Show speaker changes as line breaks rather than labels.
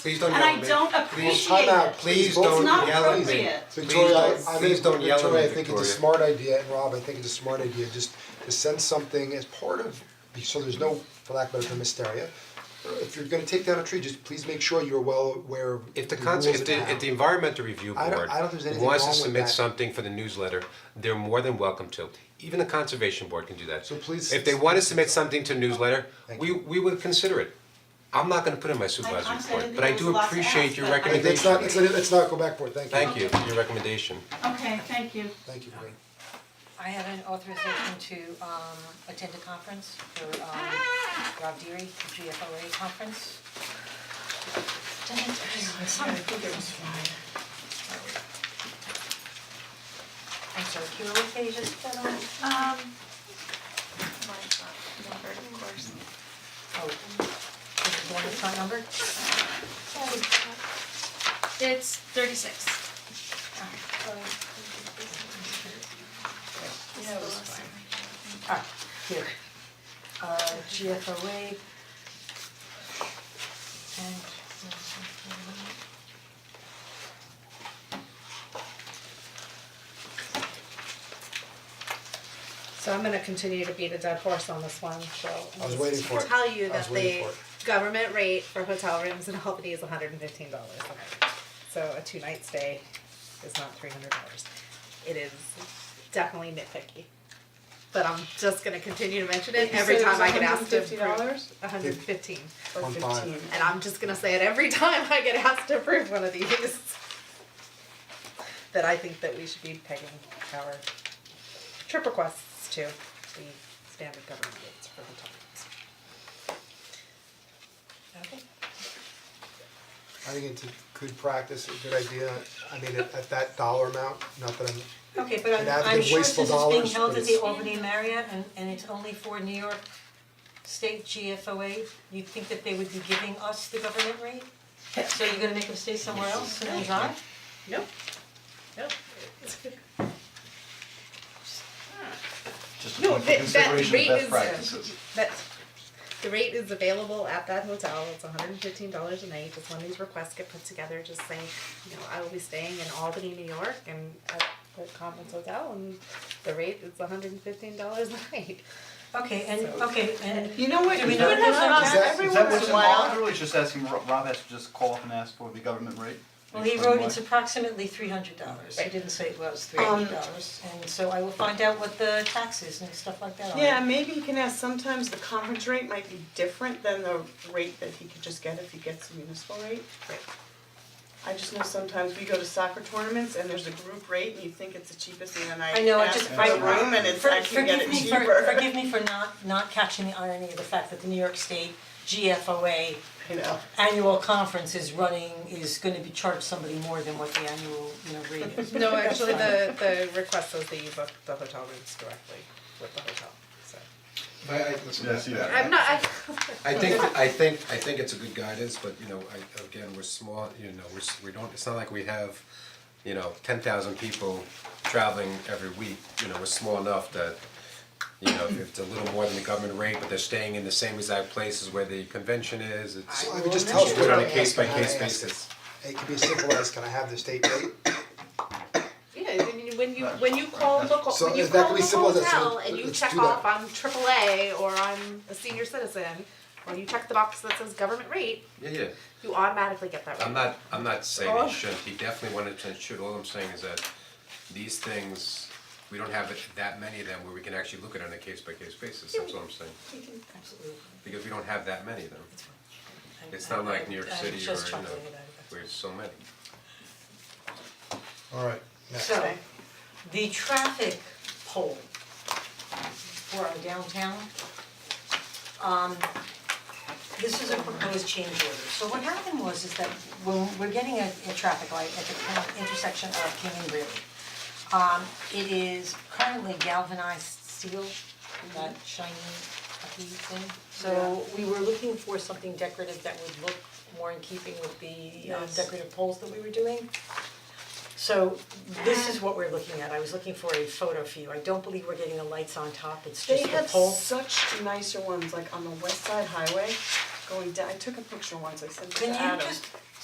Please don't
And
yell
I
at me.
don't
Please-
appreciate it.
Please
It's
don't
not
yell at me.
appropriate.
Please
Victoria, I-
don't-
I
please
think,
don't yell at me,
Victoria, I think it's a
Victoria.
smart idea, and Rob, I think it's a smart idea, just to send something as part of, so there's no, for lack of a better term, hysteria. If you're gonna take down a tree, just please make sure you're well aware of
If the
rules
cons, if the,
and how.
if the environmental review
I don't-
board
I don't think there's anything
wants to
wrong with
submit
that.
something for the newsletter, they're more than welcome to. Even the conservation board can do that.
So please-
If they wanna submit something to newsletter,
Thank
we
you.
we would consider it. I'm not gonna put in my
I
supervisor's
said
report,
it
but I
was
do
lots to
appreciate
ask,
your
but I-
I mean, let's
recommendation.
not, let's, let's not go back for it, thank you.
Thank you, your recommendation.
Okay, thank you.
Thank you, Corinne.
I have an authorization to um attend a conference for um Rob Deary, the GFOA conference. Did I tell you? Sorry. I'm sorry, can you look at just that on?
Um, well, it's not numbered, of course.
Oh, is it the one that's not numbered?
It's thirty-six.
Ah, here. Uh, GFOA. And.
So I'm gonna continue to beat a dead horse on this one, so.
I was waiting for it.
Tell you
I was
that
waiting for
the
it.
government rate for hotel rooms in Albany is hundred and fifteen dollars So a two night stay is not three hundred dollars. It is definitely nitpicky. But I'm just gonna continue to mention it every time I get asked to approve.
$150?
hundred and fifteen,
One five.
and I'm just gonna say it every time I get asked to approve one of these. That I think that we should be pegging our trip requests to the standard government rates for hotel rooms.
Okay.
I think it's a good practice, a good idea, I mean, at at that dollar amount, not that I'm
Okay, but
It'd
I'm
have to
I'm
be
sure this
wasteful
is being
dollars,
held
but
at the
it's-
Albany Marriott and and it's only for New York State GFOA. You'd think that they would be giving us the government rate? So you're gonna make them stay somewhere else and drive?
Nope. Nope. It's good.
just for
No, that- that
consideration
rate
of best
is-
practices.
That's, the rate is available at that hotel, it's hundred and fifteen dollars a night, if one of these requests get put together, just say, you know, I will be staying in Albany, New York, and at the conference hotel, and the rate is hundred and fifteen dollars a night.
Okay, and okay, and
You know what,
Do
you
we
would
know
have
this?
Rob
Is
Is that,
every
is that
once
what's
in a while.
involved, or is just asking, Ro- Rob has to just call up and ask for the government rate?
well, he
Explain
wrote
why.
it's approximately three hundred dollars. He
Right.
didn't say it was three hundred dollars. And so I will find out what the tax is and stuff like that.
Yeah, maybe you can ask, sometimes the conference rate might be different than the rate that he could just get if he gets the municipal rate.
Right.
I just know sometimes we go to soccer tournaments and there's a group rate and you think it's the cheapest and then I
I know, I
ask
just-
for
I-
the room and it's,
For-
I can get it cheaper.
Forgive me for, forgive me for not, not catching the irony of the fact that the New York State GFOA
You know,
annual conference is running, is gonna be charged somebody more than what the annual, you know, rate is.
No, actually, the, the request was that you book the hotel rooms directly with the hotel, so.
I I listen,
Yeah, I see that.
I'm not, I,
I think, I think, I think it's a good guidance, but you know, I, again, we're small, you know, we're, s- we don't, it's not like we have, you know, ten thousand people traveling every week, you know, we're small enough that, you know, if it's a little more than the government rate, but they're staying in the same exact places where the convention is, it's,
So I
it's
would just tell us what
on
I'm
a case by
asking, how to
case basis.
ask it. It could be as simple as, can I have the state rate?
Yeah, when you, when you, when you call the,
So
when you
is that
call
gonna be
the
simple? That's-
hotel and you
let's
check
do that.
off, I'm AAA or I'm a senior citizen, or you check the box that says government rate,
Yeah, yeah,
you automatically get that rate.
I'm not, I'm not saying
Oh.
it shouldn't, he definitely wanted to, should, all I'm saying is that these things, we don't have that many of them where we can actually look at it on a case by case basis, that's all I'm saying.
Absolutely.
because we don't have that many of them.
I'm-
It's not like New York
I'm- I'm
City or, you know,
just chuckling about it, that's all.
there's so many.
Alright, next.
So, the traffic pole for our downtown, um, this is a proposed change order. So what happened was is that when we're getting a, a traffic light at the cor- intersection of King and Greeley. Um, it is currently galvanized steel, that shiny puffy thing. So we were looking for something decorative that would look more in keeping with the um,
Yes.
decorative poles that we were doing. So this is what we're looking at, I was looking for a photo for you, I don't believe we're getting the lights on top, it's
they
just the
have
pole.
such nicer ones, like on the West Side Highway, going down, I took a picture once, I sent it to
Can
Adam.
you just